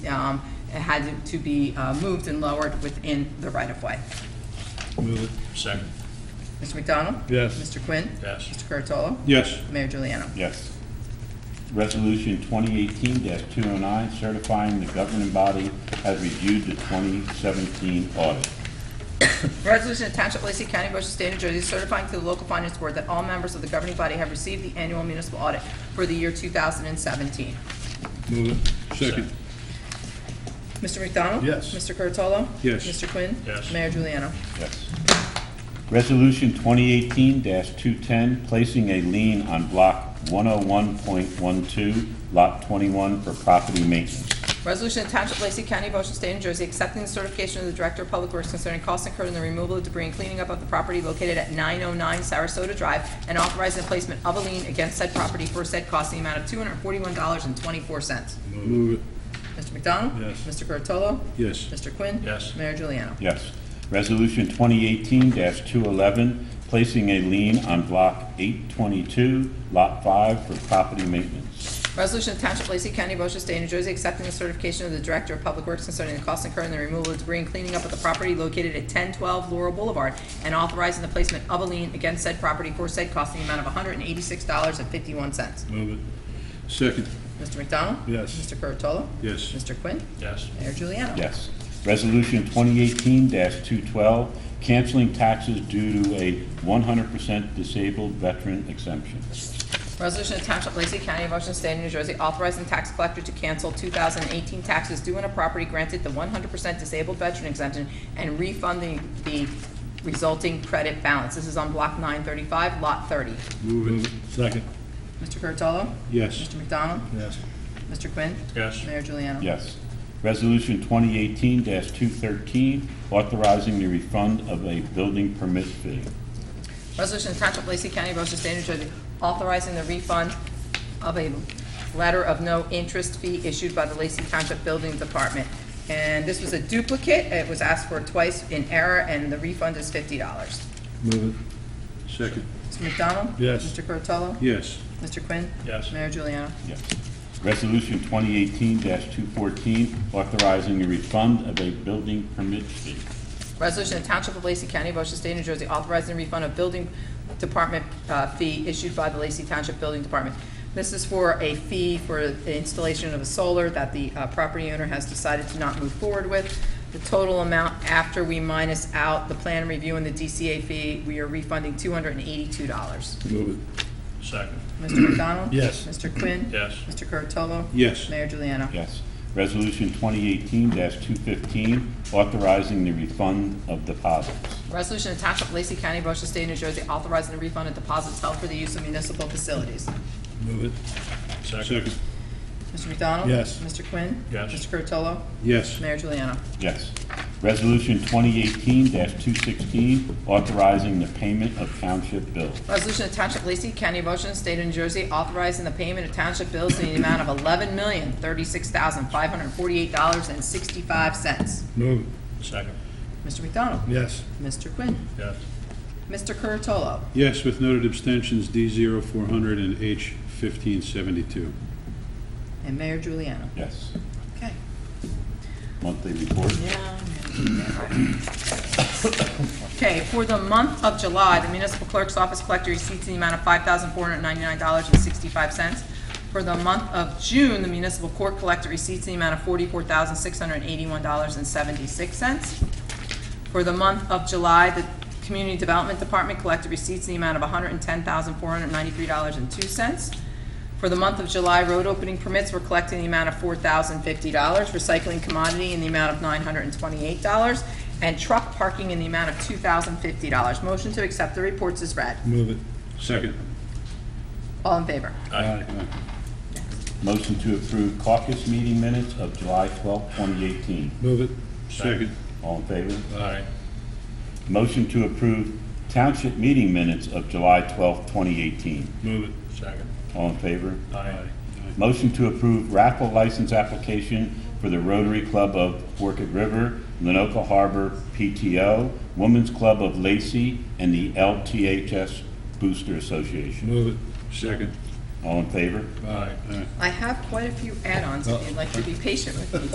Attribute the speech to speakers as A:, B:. A: um, it had to be uh, moved and lowered within the right-of-way.
B: Move it. Second.
A: Mr. McDonald?
B: Yes.
A: Mr. Quinn?
B: Yes.
A: Mr. Curatolo?
B: Yes.
A: Mayor Juliano?
C: Yes. Resolution 2018-209, certifying the governing body has reviewed the 2017 audit.
A: Resolution to Township of Lacey County, Ocean State, New Jersey, certifying to the local finance board that all members of the governing body have received the annual municipal audit for the year 2017.
B: Move it. Second.
A: Mr. McDonald?
B: Yes.
A: Mr. Curatolo?
B: Yes.
A: Mr. Quinn?
B: Yes.
A: Mayor Juliano?
C: Yes. Resolution 2018-210, placing a lien on Block 101.12, Lot 21 for property maintenance.
A: Resolution to Township of Lacey County, Ocean State, New Jersey, accepting the certification of the Director of Public Works concerning costs incurred in the removal of debris and cleaning up of the property located at 909 Sarasota Drive, and authorizing the placement of a lien against said property for said cost in the amount of $241.24.
B: Move it.
A: Mr. McDonald?
B: Yes.
A: Mr. Curatolo?
B: Yes.
A: Mr. Quinn?
B: Yes.
A: Mayor Juliano?
C: Yes. Resolution 2018-211, placing a lien on Block 822, Lot 5 for property maintenance.
A: Resolution of Township of Lacey County, Ocean State, New Jersey, accepting the certification of the Director of Public Works concerning the costs incurred in the removal of debris and cleaning up of the property located at 1012 Laurel Boulevard, and authorizing the placement of a lien against said property for said cost in the amount of $186.51.
B: Move it. Second.
A: Mr. McDonald?
B: Yes.
A: Mr. Curatolo?
B: Yes.
A: Mr. Quinn?
B: Yes.
A: Mayor Juliano?
C: Yes. Resolution 2018-212, canceling taxes due to a 100% disabled veteran exemption.
A: Resolution of Township of Lacey County, Ocean State, New Jersey, authorizing tax collector to cancel 2018 taxes due on a property granted the 100% disabled veteran exemption and refunding the resulting credit balance. This is on Block 935, Lot 30.
B: Move it. Second.
A: Mr. Curatolo?
B: Yes.
A: Mr. McDonald?
B: Yes.
A: Mr. Quinn?
B: Yes.
A: Mayor Juliano?
C: Yes. Resolution 2018-213, authorizing the refund of a building permit fee.
A: Resolution to Township of Lacey County, Ocean State, New Jersey, authorizing the refund of a letter of no interest fee issued by the Lacey Township Building Department. And this was a duplicate, it was asked for twice in error, and the refund is fifty dollars.
B: Move it. Second.
A: Mr. McDonald?
B: Yes.
A: Mr. Curatolo?
B: Yes.
A: Mr. Quinn?
B: Yes.
A: Mayor Juliana?
C: Yes. Resolution 2018-214, authorizing the refund of a building permit fee.
A: Resolution to Township of Lacey County, Ocean State, New Jersey, authorizing refund of building department uh, fee issued by the Lacey Township Building Department. This is for a fee for the installation of a solar that the uh, property owner has decided to not move forward with. The total amount after we minus out the plan review and the DCA fee, we are refunding two hundred and eighty-two dollars.
B: Move it. Second.
A: Mr. McDonald?
B: Yes.
A: Mr. Quinn?
B: Yes.
A: Mr. Curatolo?
B: Yes.
A: Mayor Juliana?
C: Yes. Resolution 2018-215, authorizing the refund of deposits.
A: Resolution to Township of Lacey County, Ocean State, New Jersey, authorizing the refund of deposits held for the use of municipal facilities.
B: Move it. Second.
A: Mr. McDonald?
B: Yes.
A: Mr. Quinn?
B: Yes.
A: Mr. Curatolo?
B: Yes.
A: Mayor Juliana?
C: Yes. Resolution 2018-216, authorizing the payment of township bills.
A: Resolution of Township of Lacey County, of Ocean State of New Jersey, authorizing the payment of township bills in the amount of eleven million, thirty-six thousand, five hundred and forty-eight dollars and sixty-five cents.
B: Move it. Second.
A: Mr. McDonald?
B: Yes.
A: Mr. Quinn?
B: Yes.
A: Mr. Curatolo?
D: Yes, with noted abstentions, D zero four hundred and H fifteen seventy-two.
A: And Mayor Juliana?
C: Yes.
A: Okay.
C: Monthly report.
A: Yeah. Okay, for the month of July, the municipal clerk's office collected receipts in the amount of five thousand four hundred ninety-nine dollars and sixty-five cents. For the month of June, the municipal court collected receipts in the amount of forty-four thousand six hundred eighty-one dollars and seventy-six cents. For the month of July, the Community Development Department collected receipts in the amount of $110,493.02. For the month of July, road opening permits were collected in the amount of $4,050, recycling commodity in the amount of $928, and truck parking in the amount of $2,050. Motion to accept the reports is read.
B: Move it.
D: Second.
A: All in favor?
B: Aye.
C: Motion to approve caucus meeting minutes of July 12, 2018.
B: Move it.
D: Second.
C: All in favor?
B: Aye.
C: Motion to approve township meeting minutes of July 12, 2018.
B: Move it. Second.
C: All in favor?
B: Aye.
C: Motion to approve raffle license application for the Rotary Club of Forked River, Lenoka Harbor PTO, Women's Club of Lacey, and the LTHS Booster Association.
B: Move
D: Second.
C: All in favor?
B: it. Aye.
A: I have quite a few add-ons, if you'd like to be patient with me.